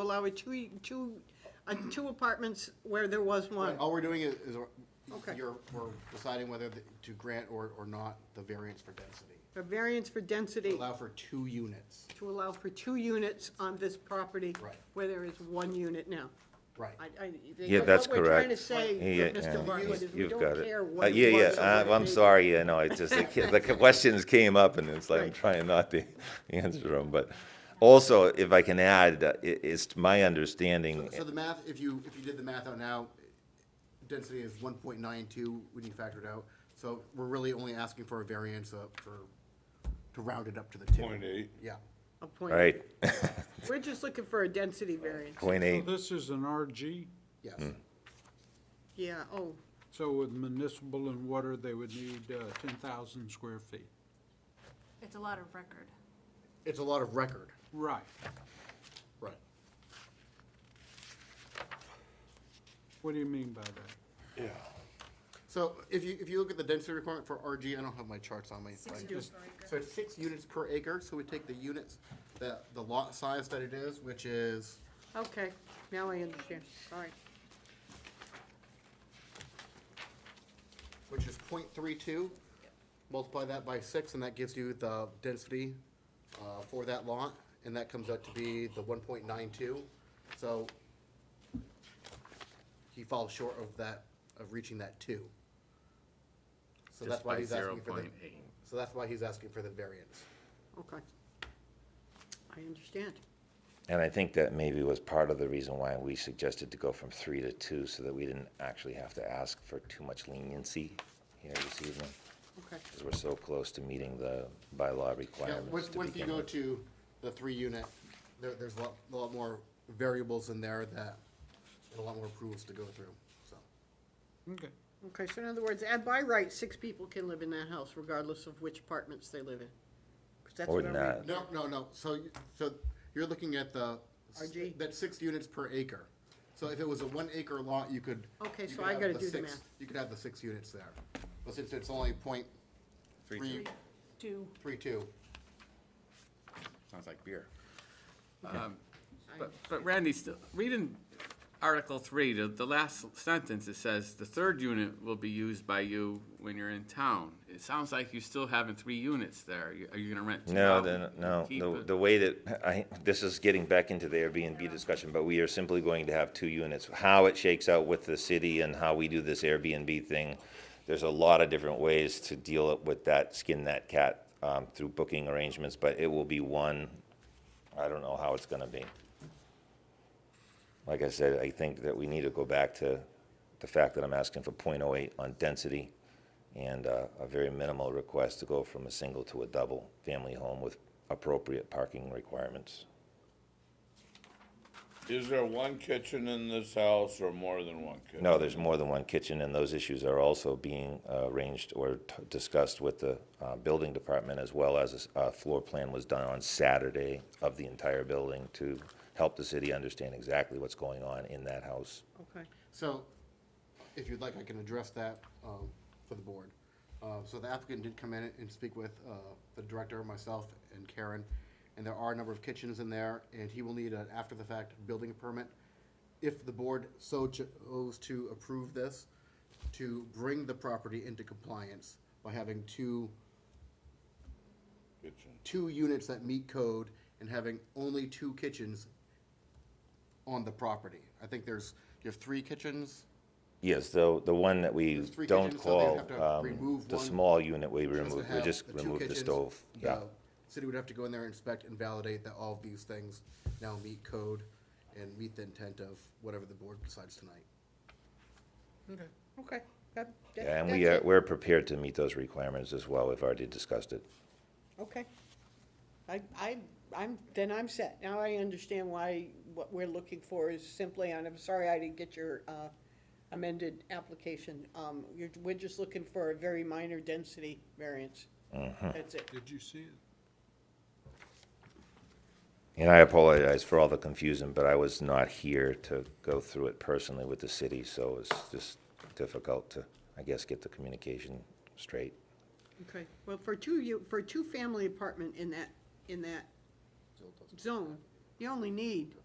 allow a two, two, uh, two apartments where there was one. All we're doing is, is we're- Okay. you're, we're deciding whether the- to grant or, or not the variance for density. A variance for density Allow for two units. to allow for two units on this property. Right. Where there is one unit now. Right. I, I. Yeah, that's What we're trying correct. to say, Yeah, with Mr. yeah, Bartlett, is we you've don't got it. care Uh, what it Yeah, was or yeah, what I- it I'm is. sorry, yeah, no, it's just, the ki- the questions came up and it's like, I'm Right. trying not to answer them, but also, if I can add, uh, i- it's my understanding, So the math, if you, if you did the math out now, density is one point nine two when you factor it out. So we're really only asking for a variance uh, for, to round it up to the two. Point eight. Yeah. A point. right, We're just looking for a density variance. point eight, This is an RG, Yes. Hmm. Yeah, oh, so with municipal and water, they would need uh, ten thousand square feet. It's a lot of record. It's a lot of record. Right, Right. what do you mean by that? Yeah. So if you, if you look at the density requirement for RG, I don't have my charts on me. Six right? units per acre. So it's six units per acre, so we take the units, the, the lot size that it is, which is, okay, now I understand, all right. which is point three two. Multiply that by six, and that gives you the density, uh, for that lot, and that comes out to be the one point nine two, so he falls short of that, of reaching that two. So that's Just why by he's zero asking for the, point eight. so that's why he's asking for the variance. Okay. I understand. and I think that maybe was part of the reason why we suggested to go from three to two, so that we didn't actually have to ask for too much leniency here this evening, Okay. because we're so close to meeting the bylaw Yeah, requirements once, to once you begin go with. to the three unit, there, there's a lot, a lot more variables in there that, and a lot more approvals to go through, so. Okay, Okay, so in other words, and by right, six people can live in that house regardless of which apartments they live in. 'Cause that's Or what I read. not. No, no, no, so, you- so you're looking at the, RG. that's six units per acre. So if it was a one acre lot, you could. Okay, you so could I have gotta do the six- math. You could have the six units there, but since it's only point Three three, Two. three two, Sounds like beer. Um, But, but Randy, still, reading Article Three, the, the last sentence, it says, "The third unit will be used by you when you're in town." It sounds like you still having three units there. You- Are you gonna rent two No, out then, and no, keep the, it? the way that, I, this is getting back into the Airbnb discussion, but we are simply going to have two units. How it shakes out with the city and how we do this Airbnb thing, there's a lot of different ways to deal with that, skin that cat, um, through booking arrangements, but it will be one, I don't know how it's gonna be. Like I said, I think that we need to go back to the fact that I'm asking for 0.08 on density and uh, a very minimal request to go from a single to a double family home with appropriate parking requirements. Is there one kitchen in this house or more than one kitchen? No, there's more than one kitchen, and those issues are also being uh, arranged or t- discussed with the uh, building department, as well as a s- a floor plan was done on Saturday of the entire building to help the city understand exactly what's going on in that house. Okay. So, if you'd like, I can address that um, for the board. Uh, So the applicant did come in and speak with uh, the director, myself, and Karen, and there are a number of kitchens in there, and he will need an after-the-fact building permit. If the board so chose to approve this, to bring the property into compliance by having two, Kitchen. two units that meet code and having only two kitchens on the property. I think there's, you have three kitchens? Yes, the, the one that we There's three don't kitchens, so they'd call, have to um, remove the one small unit we Just to removed, we have just the two removed the kitchens, stove, yeah. the City would have to go in there, inspect and validate that all of these things now meet code and meet the intent of whatever the board decides tonight. Okay, that, that, Yeah, And that's we uh, are, it. we're prepared to meet those requirements as well. We've already discussed it. Okay. I, I, I'm, then I'm set. Now I understand why what we're looking for is simply, and I'm sorry I didn't get your uh, amended application. Um, you're, we're just looking for a very minor density variance. Mm-hmm. That's it. did you see it? And I apologize for all the confusion, but I was not here to go through it personally with the city, so it's just difficult to, I guess, get the communication straight. Okay, well, for two, you, for a two-family apartment in that, in that zone, you only need